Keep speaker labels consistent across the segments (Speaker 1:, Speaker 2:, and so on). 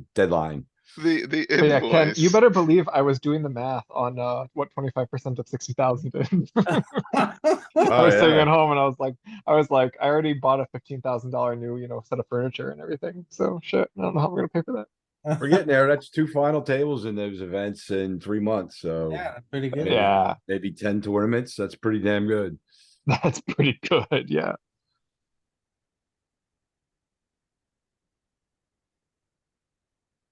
Speaker 1: deadline.
Speaker 2: The, the
Speaker 3: But yeah, Ken,
Speaker 2: invoice.
Speaker 3: you better believe I was doing the math on uh what twenty five percent of sixty thousand is. I
Speaker 1: Oh,
Speaker 3: was sitting
Speaker 1: yeah.
Speaker 3: at home and I was like, I was like, I already bought a fifteen thousand dollar new, you know, set of furniture and everything. So shit, I don't know how we're gonna pay for that.
Speaker 1: We're getting there. That's two final tables in those events in three months, so
Speaker 4: Yeah, pretty good.
Speaker 3: Yeah,
Speaker 1: maybe ten tournaments. That's pretty damn good.
Speaker 3: that's pretty good. Yeah.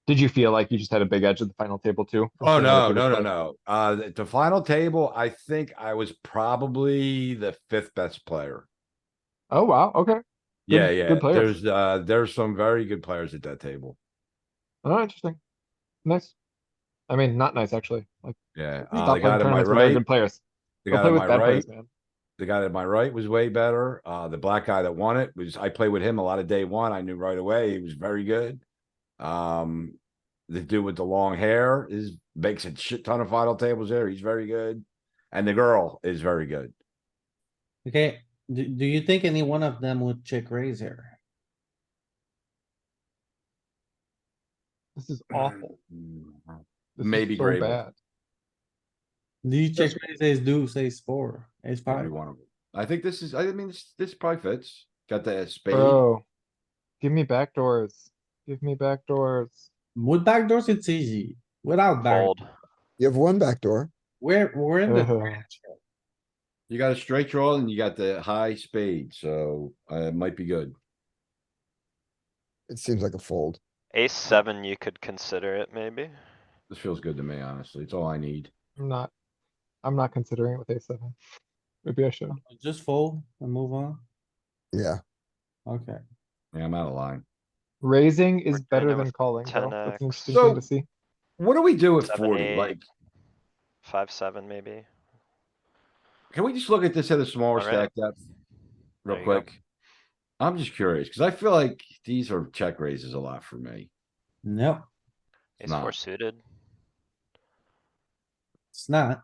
Speaker 3: Did you feel like you just had a big edge at the final table too? from
Speaker 1: Oh,
Speaker 3: some other
Speaker 1: no, no, no,
Speaker 3: player?
Speaker 1: no. Uh, the- the final table, I think I was probably the fifth best player.
Speaker 3: Oh wow. Okay. Good-
Speaker 1: Yeah,
Speaker 3: good
Speaker 1: yeah.
Speaker 3: players.
Speaker 1: There's, uh, there's some very good players at that table.
Speaker 3: Oh, interesting. Nice. I mean, not nice actually. Like
Speaker 1: Yeah. Uh,
Speaker 3: stop
Speaker 1: the
Speaker 3: playing
Speaker 1: guy to my
Speaker 3: tournaments with other
Speaker 1: right,
Speaker 3: good players.
Speaker 1: the
Speaker 3: Go
Speaker 1: guy
Speaker 3: play
Speaker 1: to
Speaker 3: with
Speaker 1: my
Speaker 3: bad
Speaker 1: right,
Speaker 3: players, man.
Speaker 1: the guy to my right was way better. Uh, the black guy that won it was, I played with him a lot of day one. I knew right away. He was very good. Um, the dude with the long hair is, makes a shit ton of final tables there. He's very good. And the girl is very good.
Speaker 4: Okay, do, do you think any one of them would check raise here?
Speaker 3: This is awful.
Speaker 1: Mm-hmm.
Speaker 3: This is
Speaker 1: Maybe
Speaker 3: so
Speaker 1: Grable.
Speaker 3: bad.
Speaker 4: Do you check raise ace deuce, ace four, ace
Speaker 1: Every
Speaker 4: five?
Speaker 1: one of them. I think this is, I mean, this, this probably fits. Got the spade.
Speaker 3: Bro, give me backdoors. Give me backdoors.
Speaker 4: With backdoors, it's easy. Without back,
Speaker 5: Fold.
Speaker 6: You have one backdoor.
Speaker 4: we're, we're in the
Speaker 3: Uh-huh.
Speaker 4: trash.
Speaker 1: You got a straight draw and you got the high spade, so, uh, it might be good.
Speaker 6: It seems like a fold.
Speaker 5: Ace seven, you could consider it maybe.
Speaker 1: This feels good to me, honestly. It's all I need.
Speaker 3: I'm not, I'm not considering it with a seven. Maybe I should.
Speaker 4: Just fold and move on.
Speaker 6: Yeah,
Speaker 4: Okay,
Speaker 1: Yeah, I'm out of line.
Speaker 3: Raising is
Speaker 5: We're doing
Speaker 3: better
Speaker 5: it
Speaker 3: than
Speaker 5: with
Speaker 3: calling, though. That's an
Speaker 5: 10x.
Speaker 3: interesting thing
Speaker 1: So-
Speaker 3: to see.
Speaker 1: What do we do with
Speaker 5: Seven,
Speaker 1: forty?
Speaker 5: eight.
Speaker 1: Like,
Speaker 5: Five, seven maybe.
Speaker 1: can we just look at this at a smaller stack
Speaker 5: Alright.
Speaker 1: depth? Real
Speaker 5: There you go.
Speaker 1: quick. I'm just curious, cuz I feel like these are check raises a lot for me.
Speaker 4: no,
Speaker 5: Ace
Speaker 1: Nah.
Speaker 5: four suited.
Speaker 4: it's not.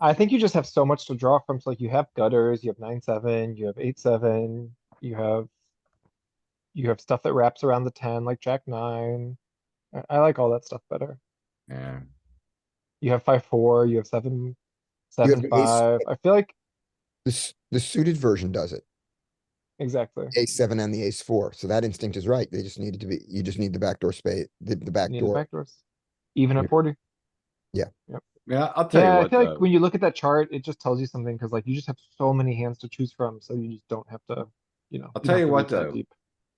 Speaker 3: I think you just have so much to draw from. So like you have gutters, you have nine, seven, you have eight, seven, you have. You have stuff that wraps around the ten, like jack nine. I, I like all that stuff better.
Speaker 1: Yeah,
Speaker 3: You have five, four, you have seven,
Speaker 6: have
Speaker 3: seven,
Speaker 6: ace-
Speaker 3: five. I feel like,
Speaker 6: this, the suited version does it.
Speaker 3: exactly.
Speaker 6: Ace seven and the ace four. So that instinct is right. They just needed to be, you just need the backdoor spade, the, the
Speaker 3: Need the
Speaker 6: backdoor.
Speaker 3: backdoors. Even
Speaker 6: Yeah.
Speaker 3: at forty.
Speaker 1: yeah, I'll tell
Speaker 3: Yeah, I
Speaker 1: you what,
Speaker 3: feel like
Speaker 1: though.
Speaker 3: when you look at that chart, it just tells you something, cause like you just have so many hands to choose from, so you just don't have to, you know.
Speaker 1: I'll
Speaker 3: don't
Speaker 1: tell
Speaker 3: have
Speaker 1: you
Speaker 3: to
Speaker 1: what,
Speaker 3: reach that
Speaker 1: though.
Speaker 3: deep.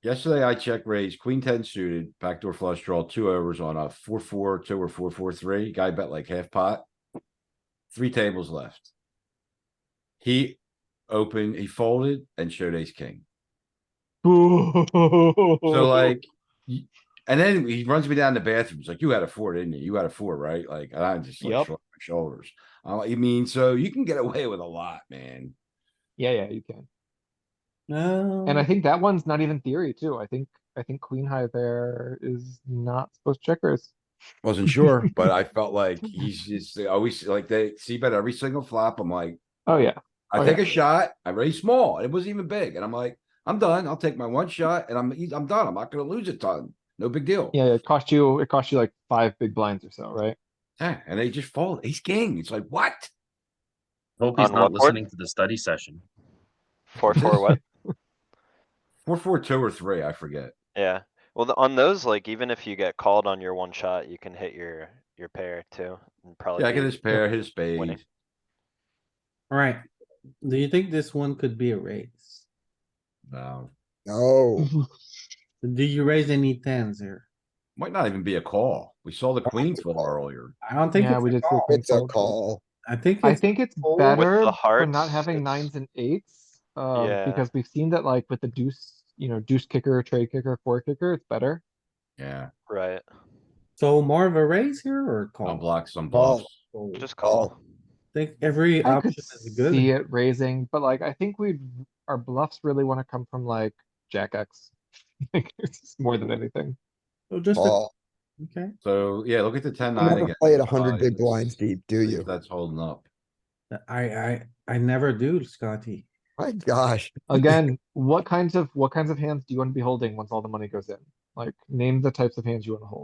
Speaker 1: yesterday I check raised queen ten suited, backdoor flush draw, two overs on a four, four, two or four, four, three. Guy bet like half pot. Three tables left. He opened, he folded and showed ace king. So like, y- and then he runs me down the bathroom. He's like, "You had a four, didn't you? You had a four, right?" Like, and I just like
Speaker 3: Yep.
Speaker 1: shrugged my shoulders. I'm like, I mean, so you can get away with a lot, man.
Speaker 3: Yeah, yeah, you can.
Speaker 4: No.
Speaker 3: And I think that one's not even theory too. I think, I think queen high there is not supposed to check raise.
Speaker 1: Wasn't sure, but I felt like he's just they always like they see bet every single flop. I'm like,
Speaker 3: Oh, yeah.
Speaker 1: I
Speaker 3: Oh,
Speaker 1: take
Speaker 3: yeah.
Speaker 1: a shot. I raise small. It wasn't even big, and I'm like, I'm done. I'll take my one shot, and I'm I'm done. I'm not gonna lose a ton. No big deal.
Speaker 3: Yeah, it cost you, it cost you like five big blinds or so, right?
Speaker 1: Yeah, and they just fold. Ace king. It's like what?
Speaker 7: Hope he's
Speaker 5: On
Speaker 7: not
Speaker 5: what board?
Speaker 7: listening to the study session.
Speaker 5: Four, four, what?
Speaker 1: Four, four, two, or three. I forget.
Speaker 5: Yeah. Well, the- on those, like even if you get called on your one shot, you can hit your, your pair too. and probably
Speaker 1: Yeah, I get
Speaker 5: be-
Speaker 1: his pair, his spade.
Speaker 5: Oh, Winning.
Speaker 4: Alright, do you think this one could be a raise?
Speaker 1: No,
Speaker 6: No,
Speaker 3: Mm-hmm.
Speaker 4: Do you raise any tens here?
Speaker 1: Might not even be a call. We saw the queen fall earlier.
Speaker 4: I don't think
Speaker 3: Yeah, we
Speaker 4: it's a
Speaker 3: did. see
Speaker 4: call.
Speaker 3: queen
Speaker 6: it's a
Speaker 3: fold.
Speaker 6: call.
Speaker 4: I think
Speaker 3: I
Speaker 4: it's
Speaker 3: think it's
Speaker 4: fold with
Speaker 3: better
Speaker 5: the
Speaker 3: for not
Speaker 5: hearts,
Speaker 3: having
Speaker 5: it's-
Speaker 3: nines and eights, um,
Speaker 5: Yeah.
Speaker 3: because we've seen that like with the deuce, you know, deuce kicker, trade kicker, four kicker, it's better.
Speaker 1: Yeah,
Speaker 5: Right,
Speaker 4: so more of a raise here or a
Speaker 6: Oh.
Speaker 4: call?
Speaker 1: unblock some
Speaker 6: Call.
Speaker 1: bluffs.
Speaker 4: Fold.
Speaker 5: just call.
Speaker 4: Think every
Speaker 3: I
Speaker 4: option
Speaker 3: could
Speaker 4: is good.
Speaker 3: see it raising, but like, I think we, our bluffs really wanna come from like jack X. Like, it's just more than anything.
Speaker 4: So just, a-
Speaker 6: Call.
Speaker 4: okay,
Speaker 1: So, yeah, look at the ten
Speaker 6: You
Speaker 1: nine
Speaker 6: never
Speaker 1: again.
Speaker 6: play it a
Speaker 1: Uh,
Speaker 6: hundred big
Speaker 1: if-
Speaker 6: blinds deep, do
Speaker 1: if
Speaker 6: you?
Speaker 1: That's holding up.
Speaker 4: I, I, I never do, Scotty.
Speaker 6: My gosh.
Speaker 3: Again, what kinds of, what kinds of hands do you wanna be holding once all the money goes in? Like, name the types of hands you wanna hold.